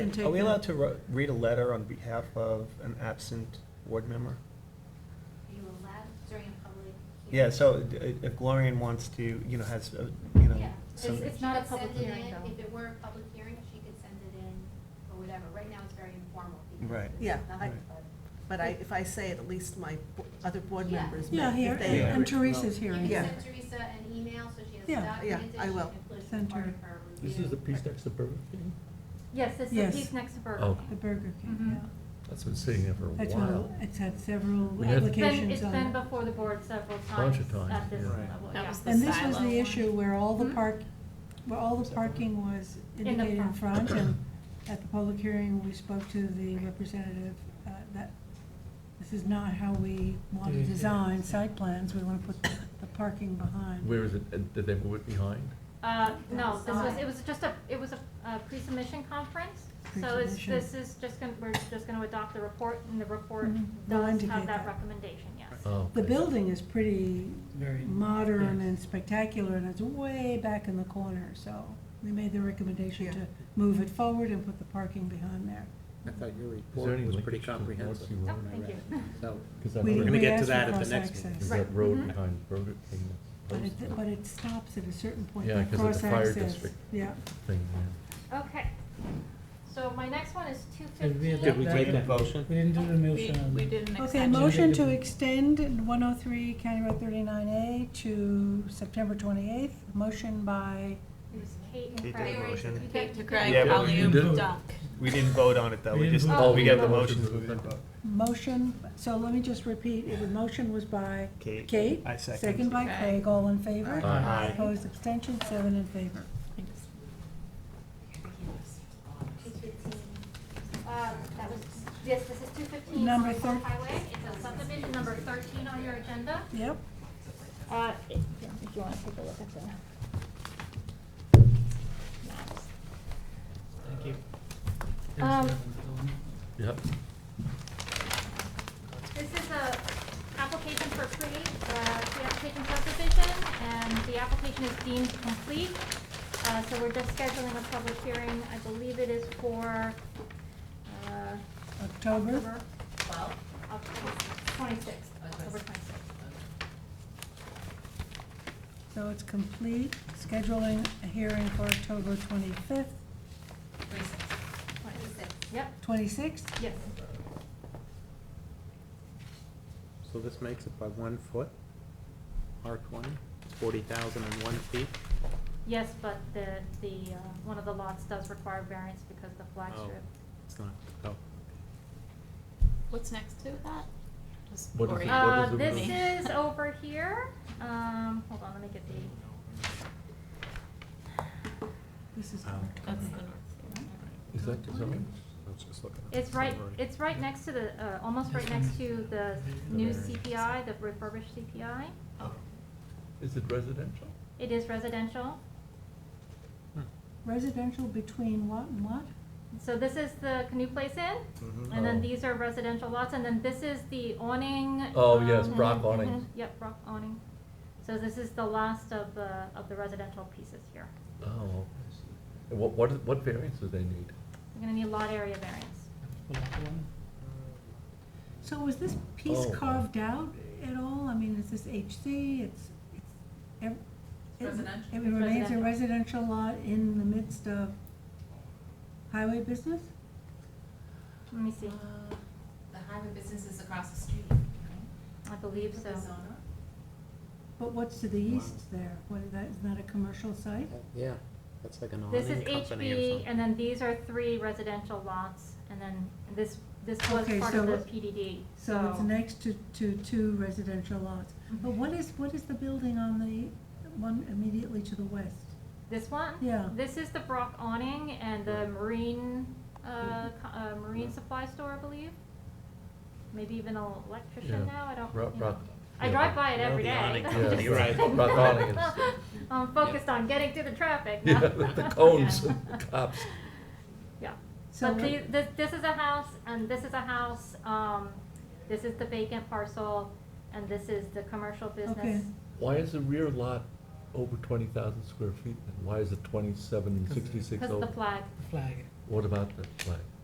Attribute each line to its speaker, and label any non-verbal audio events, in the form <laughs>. Speaker 1: can take
Speaker 2: Are we
Speaker 1: that.
Speaker 2: allowed to ro- read a letter on behalf of an absent board member?
Speaker 3: Are you allowed during a public hearing?
Speaker 2: Yeah, so uh, if Glorian wants to, you know, has, uh, you know,
Speaker 3: Yeah.
Speaker 2: some.
Speaker 3: She
Speaker 1: It's
Speaker 3: could
Speaker 1: not a
Speaker 3: send
Speaker 1: public
Speaker 3: it
Speaker 1: hearing,
Speaker 3: in.
Speaker 1: though.
Speaker 3: If it were a public hearing, she could send it in or whatever. Right now, it's very informal. because
Speaker 2: Right.
Speaker 3: it's
Speaker 4: Yeah,
Speaker 3: not-
Speaker 4: I, but I, if I say it, at least my bo- other board
Speaker 3: Yeah.
Speaker 4: members may.
Speaker 1: Yeah,
Speaker 4: if
Speaker 1: here,
Speaker 4: they
Speaker 2: Yeah.
Speaker 1: and
Speaker 4: agree.
Speaker 1: Teresa's
Speaker 3: You
Speaker 1: hearing.
Speaker 3: can
Speaker 4: Yeah.
Speaker 3: send Teresa an email so she has
Speaker 1: Yeah.
Speaker 3: it
Speaker 4: Yeah,
Speaker 3: documented.
Speaker 4: I
Speaker 3: She
Speaker 4: will.
Speaker 3: can put it as
Speaker 1: Send
Speaker 3: part
Speaker 1: her.
Speaker 3: of her review.
Speaker 5: This is the piece next to Burger King?
Speaker 6: Yes, it's the
Speaker 1: Yes.
Speaker 6: piece next to Burger
Speaker 5: Oh.
Speaker 1: The
Speaker 6: King.
Speaker 1: Burger King,
Speaker 6: Mhm.
Speaker 1: yeah.
Speaker 5: That's been sitting there for a
Speaker 1: That's one,
Speaker 5: while.
Speaker 1: of- it's had several
Speaker 5: We
Speaker 6: It's
Speaker 5: had-
Speaker 6: been,
Speaker 1: applications
Speaker 6: it's
Speaker 1: on
Speaker 6: been
Speaker 1: it.
Speaker 6: before the board several times
Speaker 5: Bunch of times,
Speaker 6: at this
Speaker 5: yeah. Right.
Speaker 6: level,
Speaker 7: That
Speaker 6: yeah.
Speaker 7: was the
Speaker 1: And this was
Speaker 7: silo
Speaker 1: the
Speaker 7: one.
Speaker 1: issue where all the
Speaker 6: Mhm.
Speaker 1: park, where all the
Speaker 2: Separate.
Speaker 1: parking was
Speaker 6: In the
Speaker 1: indicated in
Speaker 6: front.
Speaker 1: front, and at the public hearing, we spoke to the representative, uh, that this is not how we want to
Speaker 6: Mm-hmm.
Speaker 5: Yeah, yeah.
Speaker 1: design site plans, we want to put the parking behind.
Speaker 5: Where is it, and did they move it behind?
Speaker 6: Uh, no, this was,
Speaker 3: Outside.
Speaker 6: it was just a, it was a, uh pre-submission conference. So it's,
Speaker 1: Pre-submission.
Speaker 6: this is just gonna, we're just gonna adopt the report and the report
Speaker 1: Mhm. We'll
Speaker 6: does
Speaker 1: indicate
Speaker 6: have that
Speaker 1: that.
Speaker 6: recommendation, yes.
Speaker 5: Oh,
Speaker 1: The
Speaker 5: okay.
Speaker 1: building is pretty
Speaker 8: Very-
Speaker 1: modern
Speaker 8: yes.
Speaker 1: and spectacular, and it's way back in the corner, so they made the recommendation
Speaker 4: Yeah.
Speaker 1: to move it forward and put the parking behind there.
Speaker 8: I thought
Speaker 5: Is
Speaker 8: your
Speaker 5: there
Speaker 8: report
Speaker 5: any
Speaker 8: was
Speaker 5: linkage
Speaker 8: pretty
Speaker 5: to the North
Speaker 8: comprehensive.
Speaker 5: Sea
Speaker 6: Oh,
Speaker 5: Road?
Speaker 6: thank you.
Speaker 8: So,
Speaker 5: Because
Speaker 1: We-
Speaker 8: We're
Speaker 5: that
Speaker 8: gonna
Speaker 1: we
Speaker 5: road,
Speaker 8: get to
Speaker 1: asked for
Speaker 8: that at the next
Speaker 1: cross-access.
Speaker 8: meeting.
Speaker 5: because
Speaker 6: Right.
Speaker 5: that road
Speaker 6: Mhm.
Speaker 5: behind Burger King,
Speaker 1: Mm-hmm. But
Speaker 5: that's
Speaker 1: it, but
Speaker 5: posted
Speaker 1: it stops at a certain point.
Speaker 5: Yeah,
Speaker 1: that
Speaker 5: 'cause of the fire
Speaker 1: cross-access.
Speaker 5: district.
Speaker 1: Yeah.
Speaker 5: thing,
Speaker 6: <laughs> Okay, so my next one is two
Speaker 8: Did
Speaker 6: fifteen.
Speaker 8: we adopt
Speaker 2: we
Speaker 8: that?
Speaker 2: take a motion?
Speaker 8: We didn't do the
Speaker 7: We,
Speaker 8: motion. on-
Speaker 7: we did an
Speaker 1: Okay,
Speaker 7: extension.
Speaker 1: motion to extend one oh three County Road thirty-nine A to September twenty-eighth. Motion by,
Speaker 6: It was Kate
Speaker 2: Kate
Speaker 6: and
Speaker 2: did
Speaker 6: Craig.
Speaker 2: a motion.
Speaker 7: Kate to Craig,
Speaker 2: Yeah, but we
Speaker 7: Colleen,
Speaker 5: didn't-
Speaker 7: Duck.
Speaker 2: We didn't vote on it, though,
Speaker 8: We
Speaker 2: we
Speaker 8: didn't
Speaker 2: just,
Speaker 6: vote.
Speaker 2: we got the
Speaker 6: Oh, we
Speaker 2: motions,
Speaker 5: didn't
Speaker 2: we didn't
Speaker 5: vote.
Speaker 2: vote.
Speaker 1: motion, so let me just repeat, it was, motion was by
Speaker 2: Kate.
Speaker 1: Kate.
Speaker 2: I second.
Speaker 1: by
Speaker 7: Okay.
Speaker 1: Craig, all in favor?
Speaker 5: Aye. Aye.
Speaker 1: Opposed, abstention, seven in favor.
Speaker 3: Two fifteen.
Speaker 6: uh,
Speaker 3: Um, that was, yes, this is two fifteen.
Speaker 1: Number thir-
Speaker 3: Highway. It's a subdivision number thirteen on your agenda.
Speaker 1: Yep.
Speaker 6: Uh, if if you wanna take a look at the maps.
Speaker 8: Thank you.
Speaker 6: Um,
Speaker 5: yeah. Yep.
Speaker 6: This is a application for pre, uh, pre-application subdivision, and the application is deemed complete. Uh, so we're just scheduling a public hearing, I believe it is for, uh,
Speaker 1: October.
Speaker 6: October, October twenty-sixth, October twenty-sixth.
Speaker 1: So it's complete, scheduling a hearing for October twenty-fifth,
Speaker 3: Twenty-six.
Speaker 6: Yep,
Speaker 1: twenty-sixth?
Speaker 6: yes.
Speaker 8: So this makes it by one foot, R twenty, it's forty thousand and one feet.
Speaker 6: Yes, but the, the, uh, one of the lots does require variance because of the flag
Speaker 8: Oh,
Speaker 6: strip.
Speaker 8: It's not, oh.
Speaker 7: What's next to that? Just
Speaker 5: What is
Speaker 7: Cory.
Speaker 5: it? What
Speaker 6: Uh,
Speaker 5: is
Speaker 6: this
Speaker 5: room?
Speaker 6: is over here, um, hold on, let me get the,
Speaker 1: This is
Speaker 8: Oh.
Speaker 7: That's the
Speaker 1: October.
Speaker 7: north.
Speaker 5: Is that the zoning?
Speaker 6: It's right, it's right next to the, uh, almost right next to the new CPI, the refurbished CPI.
Speaker 5: Is it residential?
Speaker 6: It is residential.
Speaker 1: Residential between what and what?
Speaker 6: So this is the Canoe Place Inn, and
Speaker 5: Oh.
Speaker 6: then these are residential lots, and then this is the awning.
Speaker 5: Oh, yes,
Speaker 6: um,
Speaker 5: Brock
Speaker 6: mhm,
Speaker 5: awnings.
Speaker 6: mhm, <laughs> Yep, Brock awning. So this is the last of the, of the residential pieces here.
Speaker 5: Oh. okay. And What, what, what variance do they need?
Speaker 6: You're gonna need lot area variance.
Speaker 1: So was this piece
Speaker 5: Oh.
Speaker 1: carved out at all? I mean, is this HC? It's, it's. ev- it-
Speaker 7: Residential.
Speaker 1: It remains a
Speaker 6: Residential.
Speaker 1: residential lot in the midst of highway business?
Speaker 6: Let me see,
Speaker 9: The highway business is across the street,
Speaker 6: I believe so.
Speaker 1: But what's to the east there? What, is that, is that a commercial site?
Speaker 8: Yeah, that's like an
Speaker 5: Oh,
Speaker 6: This is
Speaker 8: awning company or
Speaker 6: HB,
Speaker 8: something.
Speaker 6: and then these are three residential lots, and then this, this was
Speaker 1: Okay,
Speaker 6: part of
Speaker 1: so-
Speaker 6: the PDD, so. Mhm.
Speaker 1: So it's next to, to two residential lots. But what is, what is the building on the one immediately to the west?
Speaker 6: This one?
Speaker 1: Yeah.
Speaker 6: This is the Brock awning and the marine,
Speaker 5: Mm-hmm.
Speaker 6: uh, co- uh, marine supply store, I believe. Maybe even an electrician
Speaker 5: Yeah.
Speaker 6: now, I don't,
Speaker 5: Bro-
Speaker 6: you
Speaker 5: Brock-
Speaker 6: know. I
Speaker 5: yeah,
Speaker 6: drive
Speaker 5: <laughs> Brock-
Speaker 6: by it
Speaker 8: No,
Speaker 6: every
Speaker 8: the
Speaker 6: day. <laughs>
Speaker 8: awning
Speaker 6: I'm
Speaker 5: company,
Speaker 6: just
Speaker 5: right.
Speaker 6: saying.
Speaker 5: Brock awning is-
Speaker 6: I'm focused on getting to the traffic
Speaker 5: Yeah,
Speaker 6: now. <laughs>
Speaker 5: the cones, the cops.
Speaker 6: Yeah.
Speaker 1: So
Speaker 6: But the, this, this is a house, and this is a house, um, this is the vacant parcel, and this is the commercial business.
Speaker 1: Okay.
Speaker 5: Why is the rear lot over twenty thousand square feet? And why is it twenty-seven and sixty-six
Speaker 6: Because of
Speaker 5: over?
Speaker 6: the flag.
Speaker 8: Flag.
Speaker 5: What about the flag?